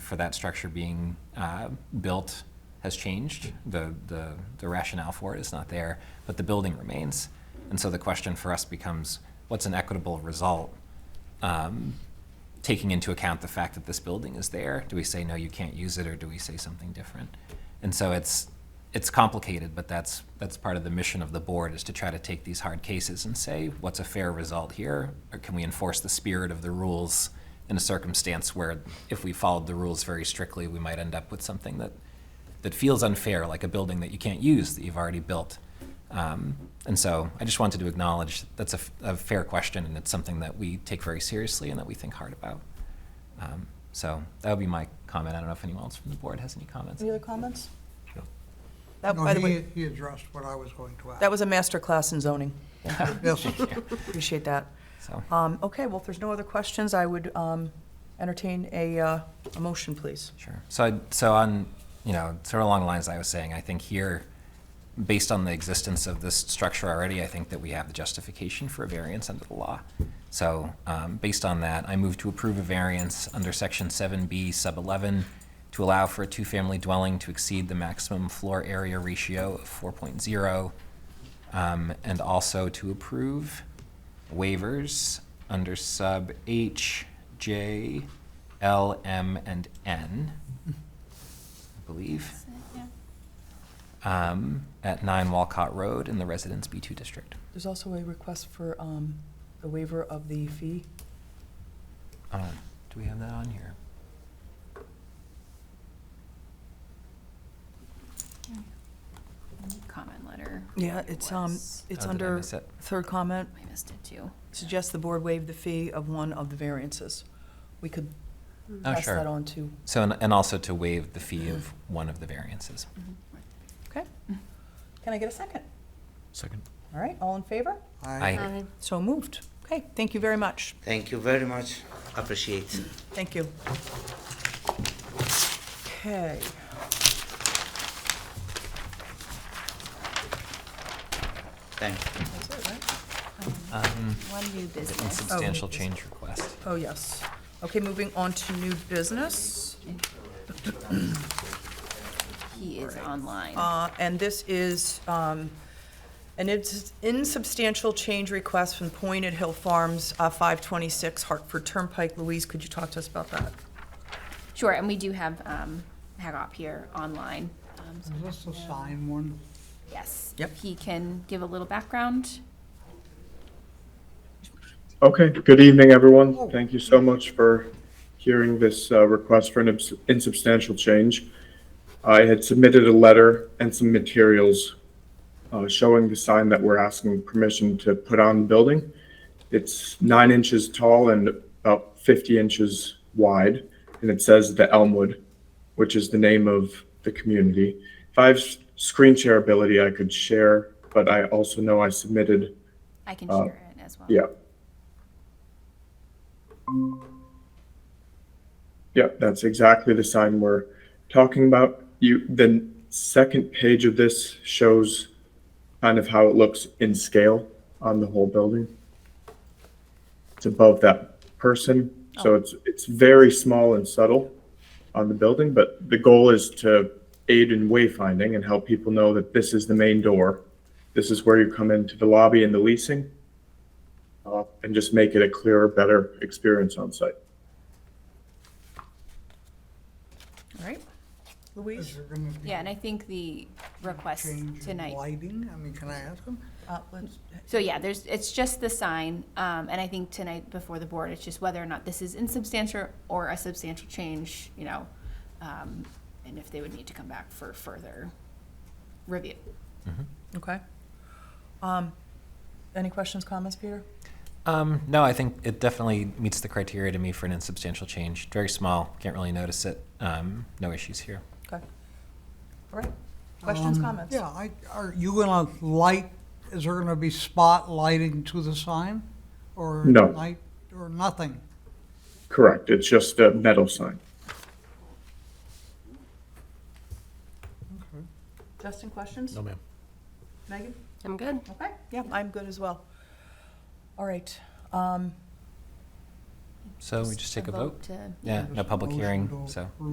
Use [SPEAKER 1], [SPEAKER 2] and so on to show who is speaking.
[SPEAKER 1] for that structure being uh, built has changed. The, the, the rationale for it is not there, but the building remains. And so the question for us becomes, what's an equitable result? Um, taking into account the fact that this building is there, do we say, no, you can't use it, or do we say something different? And so it's, it's complicated, but that's, that's part of the mission of the board, is to try to take these hard cases and say, what's a fair result here? Or can we enforce the spirit of the rules in a circumstance where if we followed the rules very strictly, we might end up with something that, that feels unfair, like a building that you can't use that you've already built. Um, and so I just wanted to acknowledge that's a, f- a fair question, and it's something that we take very seriously and that we think hard about. Um, so that would be my comment. I don't know if anyone else from the board has any comments.
[SPEAKER 2] Any other comments?
[SPEAKER 1] No.
[SPEAKER 2] That,
[SPEAKER 3] No,
[SPEAKER 2] by the
[SPEAKER 3] he-
[SPEAKER 2] way,
[SPEAKER 3] He addressed what I was going to ask.
[SPEAKER 2] that was a master class in zoning.
[SPEAKER 3] Yes,
[SPEAKER 2] Appreciate that.
[SPEAKER 1] So
[SPEAKER 2] Um, Okay, well, if there's no other questions, I would um, entertain a, uh, a motion, please.
[SPEAKER 1] sure. So I, so on you know sort of along the lines I was saying, I think here, based on the existence of this structure already, I think that we have the justification for a variance under the law. So um, based on that, I move to approve a variance under section 7B sub 11 to allow for a two-family dwelling to exceed the maximum floor area ratio of 4.0 Um, and also to approve waivers under sub H, J, L, M, and N, I believe, um, at 9 Walcott Road in the Residence B2 District.
[SPEAKER 2] There's also a request for um, a waiver of the fee.
[SPEAKER 1] Um, do we have that on here?
[SPEAKER 4] Comment letter.
[SPEAKER 2] Yeah, it's, um,
[SPEAKER 4] was-
[SPEAKER 2] it's
[SPEAKER 1] Oh, did I
[SPEAKER 2] under
[SPEAKER 1] miss it?
[SPEAKER 2] third comment.
[SPEAKER 4] I missed it too.
[SPEAKER 2] Suggest the board waive the fee of one of the variances. We could
[SPEAKER 1] Oh,
[SPEAKER 2] pass Mm-hmm. that
[SPEAKER 1] sure.
[SPEAKER 2] on to,
[SPEAKER 1] So, and, and also to waive the fee of one of the variances.
[SPEAKER 4] Mm-hmm.
[SPEAKER 2] okay? Can I get a second?
[SPEAKER 5] Second.
[SPEAKER 2] All right, all in favor?
[SPEAKER 3] I,
[SPEAKER 1] Aye.
[SPEAKER 2] So moved. Okay, thank you very much.
[SPEAKER 6] Thank you very much. Appreciate.
[SPEAKER 2] Thank you. Okay.
[SPEAKER 6] Thank you.
[SPEAKER 2] That's it, right?
[SPEAKER 1] Um,
[SPEAKER 4] One new
[SPEAKER 1] the
[SPEAKER 4] business.
[SPEAKER 1] insubstantial change request.
[SPEAKER 2] Oh, yes. Okay, moving on to new business.
[SPEAKER 4] He is online.
[SPEAKER 2] Uh, And this is um, an ins- insubstantial change request from Pointed Hill Farms, uh, 526 Hartford Turnpike. Louise, could you talk to us about that?
[SPEAKER 4] Sure, and we do have um, Hagop here online. Um, so-
[SPEAKER 3] Is this the sign one?
[SPEAKER 4] Yes.
[SPEAKER 2] Yep.
[SPEAKER 4] He can give a little background.
[SPEAKER 7] Okay, good evening, everyone. Thank you so much for hearing this uh, request for an abs- insubstantial change. I had submitted a letter and some materials uh, showing the sign that we're asking permission to put on the building. It's nine inches tall and about 50 inches wide, and it says "The Elmwood," which is the name of the community. If I have s- screen share ability, I could share, but I also know I submitted
[SPEAKER 4] I can share it as well.
[SPEAKER 7] yeah. Yeah, that's exactly the sign we're talking about. You, the second page of this shows kind of how it looks in scale on the whole building. It's above that person, so it's, it's very small and subtle on the building, but the goal is to aid in wayfinding and help people know that this is the main door. This is where you come into the lobby and the leasing uh, and just make it a clearer, better experience on site.
[SPEAKER 2] All right?
[SPEAKER 3] Is
[SPEAKER 2] Louise?
[SPEAKER 3] there gonna be
[SPEAKER 4] Yeah, and I think the request
[SPEAKER 3] change in
[SPEAKER 4] tonight.
[SPEAKER 3] lighting? I mean, can I ask him?
[SPEAKER 2] Uh, let's-
[SPEAKER 4] So yeah, there's, it's just the sign, um, and I think tonight before the board, it's just whether or not this is insubstantial or a substantial change, you know, um, and if they would need to come back for further review.
[SPEAKER 2] Okay. Um, Any questions, comments, Peter?
[SPEAKER 1] Um, no, I think it definitely meets the criteria to me for an insubstantial change. Very small, can't really notice it. Um, no issues here.
[SPEAKER 2] Okay. All right. Questions,
[SPEAKER 3] Um,
[SPEAKER 2] comments?
[SPEAKER 3] Yeah, I, are you gonna light, is there gonna be spotlighting to the sign? Or
[SPEAKER 7] No.
[SPEAKER 3] night, or nothing?
[SPEAKER 7] Correct. It's just a metal sign.
[SPEAKER 2] Justin, questions?
[SPEAKER 5] No, ma'am.
[SPEAKER 2] Megan?
[SPEAKER 8] I'm good.
[SPEAKER 2] Okay, yeah, I'm good as well. All right. um,
[SPEAKER 1] So we just take a vote?
[SPEAKER 4] to-
[SPEAKER 1] Yeah, no public
[SPEAKER 3] Motion
[SPEAKER 1] hearing,
[SPEAKER 3] to
[SPEAKER 1] so.